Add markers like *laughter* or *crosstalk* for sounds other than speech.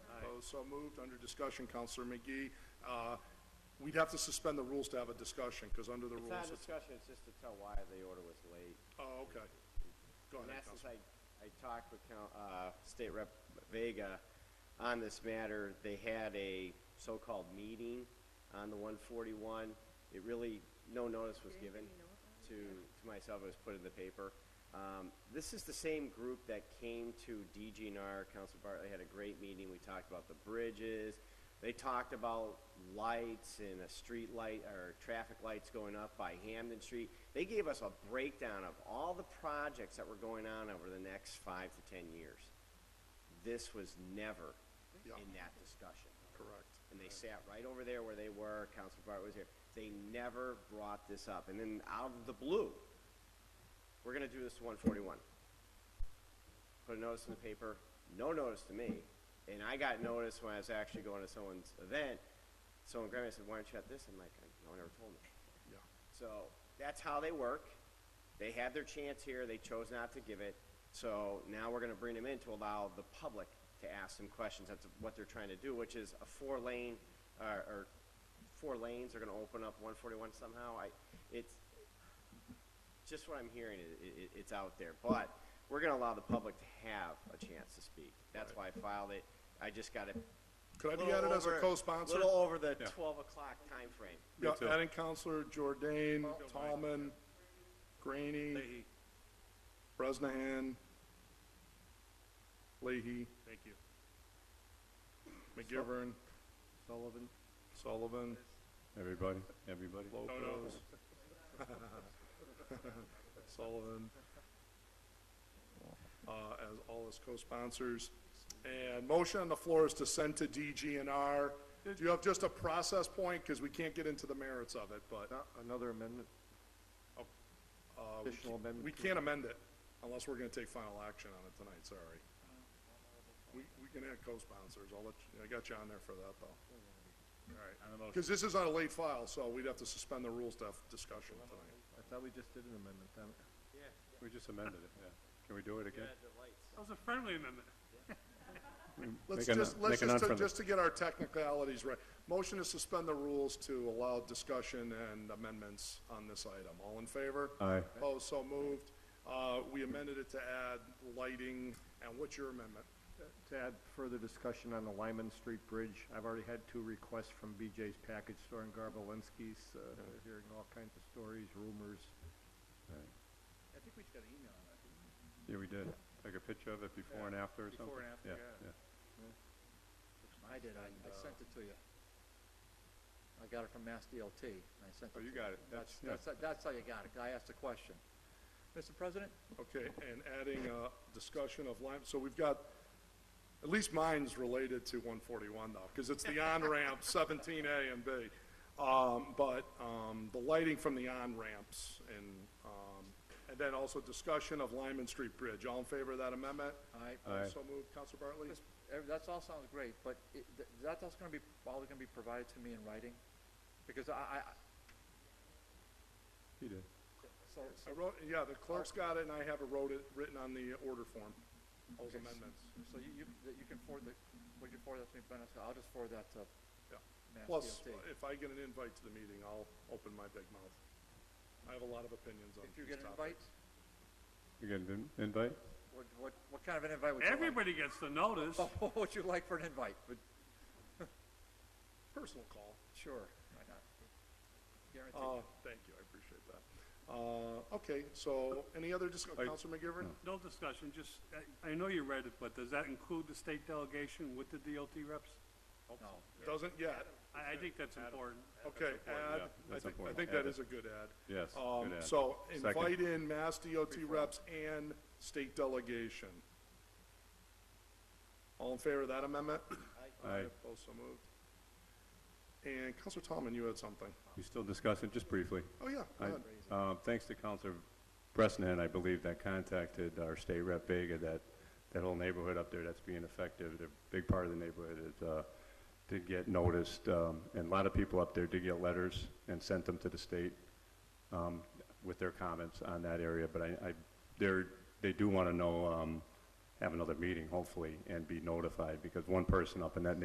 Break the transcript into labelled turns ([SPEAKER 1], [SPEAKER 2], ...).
[SPEAKER 1] so moved. Under discussion, Counselor McGee, uh, we'd have to suspend the rules to have a discussion, because under the
[SPEAKER 2] It's not
[SPEAKER 1] rules,
[SPEAKER 2] a
[SPEAKER 1] it's...
[SPEAKER 2] discussion, it's just to tell why the order was late.
[SPEAKER 1] Oh, okay. Go
[SPEAKER 2] In
[SPEAKER 1] ahead,
[SPEAKER 2] essence,
[SPEAKER 1] Counselor.
[SPEAKER 2] I, I talked with, Coun- uh, State Rep Vega on this matter. They had a so-called meeting on the one forty-one. It really, no notice was given to, to myself, it was put in the paper. Um, this is the same group that came to DGNR, Council Bartley had a great meeting, we talked about the bridges. They talked about lights and a street light, or traffic lights going up by Hamden Street. They gave us a breakdown of all the projects that were going on over the next five to ten years. This was never
[SPEAKER 1] Yeah.
[SPEAKER 2] in that discussion
[SPEAKER 1] Correct.
[SPEAKER 2] and they sat right over there where they were, Council Bart was here. They never brought this up, and then out of the blue, we're gonna do this to one forty-one. Put a notice in the paper, no notice to me, and I got notice when I was actually going to someone's event. Someone grabbed me and said, why aren't you at this? I'm like, no one ever told me.
[SPEAKER 1] Yeah.
[SPEAKER 2] So that's how they work. They had their chance here, they chose not to give it. So now we're gonna bring them in to allow the public to ask them questions. That's what they're trying to do, which is a four lane, or, or four lanes are gonna open up one forty-one somehow. I, it's, just what I'm hearing, i i it's out there. But we're gonna allow the public to have a chance to speak. That's why I filed it. I just got it.
[SPEAKER 1] Could I be
[SPEAKER 2] little
[SPEAKER 1] added as a
[SPEAKER 2] over-
[SPEAKER 1] co-sponsor?
[SPEAKER 2] Little over the
[SPEAKER 3] Yeah.
[SPEAKER 2] twelve o'clock timeframe.
[SPEAKER 1] Yeah,
[SPEAKER 3] Me too.
[SPEAKER 1] adding Counselor Jordan, Tallman, Graney, Bresnahan, Leahy. Thank you. McGivern. Sullivan. Sullivan,
[SPEAKER 3] Everybody, everybody.
[SPEAKER 1] Lopez. *laughs* Sullivan. Uh, as all his co-sponsors. And motion on the floor is to send to DGNR. Do you have just a process point? Because we can't get into the merits of it, but.
[SPEAKER 4] Not Another amendment,
[SPEAKER 1] Uh, we
[SPEAKER 4] Additional
[SPEAKER 1] can't-
[SPEAKER 4] amendment
[SPEAKER 1] We
[SPEAKER 4] to-
[SPEAKER 1] can't amend it unless we're gonna take final action on it tonight, sorry. We, we can add co-sponsors, I'll let, you- I got you on there for that, though.
[SPEAKER 3] Alright.
[SPEAKER 1] Because this is on a late file, so we'd have to suspend the rules to have discussion tonight.
[SPEAKER 4] I thought we just did an amendment, damn it.
[SPEAKER 3] We just amended it, yeah. Can we do it again?
[SPEAKER 5] That was a friendly amendment.
[SPEAKER 1] Let's
[SPEAKER 3] Make a no-
[SPEAKER 1] just, let's
[SPEAKER 3] make a
[SPEAKER 1] just, to-
[SPEAKER 3] non-friendly.
[SPEAKER 1] just to get our technicalities right. Motion to suspend the rules to allow discussion and amendments on this item. All in favor?
[SPEAKER 3] Aye.
[SPEAKER 1] Opposed, so moved. Uh, we amended it to add lighting, and what's your amendment?
[SPEAKER 4] To add further discussion on the Lyman Street Bridge, I've already had two requests from BJ's Package Store and Garbolinski's, uh, they're hearing all kinds of stories, rumors.
[SPEAKER 3] Yeah, we did. Take a picture of it before and after or something?
[SPEAKER 6] Before and after, yeah.
[SPEAKER 7] I did, I, I sent it to you. I got it from Mass DLT, and I sent it
[SPEAKER 3] Oh,
[SPEAKER 7] to you.
[SPEAKER 3] you got it.
[SPEAKER 7] That's,
[SPEAKER 3] That's-
[SPEAKER 7] that's, that's how you got it, 'cause I asked a question. Mr. President,
[SPEAKER 1] Okay, and adding a discussion of Lyme, so we've got, at least mine's related to one forty-one though, because it's the on-ramp seventeen A and B. Um, but, um, the lighting from the on-ramps and, um, and then also discussion of Lyman Street Bridge. All in favor of that amendment?
[SPEAKER 7] I,
[SPEAKER 3] Aye.
[SPEAKER 1] So moved, Counselor Bartley?
[SPEAKER 7] this- eh, that's all sounds great, but it, th- that, that's gonna be, probably gonna be provided to me in writing, because I, I, I-
[SPEAKER 3] He did.
[SPEAKER 7] so, so,
[SPEAKER 1] I wrote, yeah, the clerk's got it and I have it wrote it, written on the order form, those amendments.
[SPEAKER 7] so you, you, that you can forward the, would you forward that to me, Ben? I'll just forward that to
[SPEAKER 1] Yeah.
[SPEAKER 7] Mass DLT.
[SPEAKER 1] Plus, if I get an invite to the meeting, I'll open my big mouth. I have a lot of opinions on
[SPEAKER 7] If you
[SPEAKER 1] these
[SPEAKER 7] get an
[SPEAKER 1] topics.
[SPEAKER 7] invite,
[SPEAKER 3] You get an invite?
[SPEAKER 7] what, what, what kind of an invite would you like?
[SPEAKER 5] Everybody gets the notice.
[SPEAKER 7] *laughs* What would you like for an invite? Would-
[SPEAKER 1] Personal call.
[SPEAKER 7] Sure, why not? Guaranteed.
[SPEAKER 1] Uh, thank you, I appreciate that. Uh, okay, so any other discussion,
[SPEAKER 3] I-
[SPEAKER 1] Counselor McGivern?
[SPEAKER 5] No discussion, just, I, I know you read it, but does that include the state delegation with the DLT reps?
[SPEAKER 7] No.
[SPEAKER 1] Doesn't yet.
[SPEAKER 5] I, I think that's important.
[SPEAKER 1] Okay, add,
[SPEAKER 3] yeah,
[SPEAKER 1] I
[SPEAKER 3] that's
[SPEAKER 1] think, I
[SPEAKER 3] important.
[SPEAKER 1] think that
[SPEAKER 3] Add it.
[SPEAKER 1] is a good ad.
[SPEAKER 3] Yes,
[SPEAKER 1] Um,
[SPEAKER 3] good ad.
[SPEAKER 1] so
[SPEAKER 3] Second.
[SPEAKER 1] invite in Mass DOT reps and state delegation. All in favor of that amendment?
[SPEAKER 3] Aye.
[SPEAKER 1] Opposed, so moved. And Counselor Tomlin, you had something.
[SPEAKER 3] We still discuss it, just briefly.
[SPEAKER 1] Oh, yeah, go
[SPEAKER 3] I-
[SPEAKER 1] ahead.
[SPEAKER 3] uh, Thanks to Counselor Bresnahan, I believe, that contacted our state rep Vega, that, that whole neighborhood up there that's being affected, a big part of the neighborhood is, uh, did get noticed, um, and a lot of people up there did get letters and sent them to the state um, with their comments on that area, but I, I, they're, they do want to know, um, have another meeting, hopefully, and be notified, because one person up in that neighborhood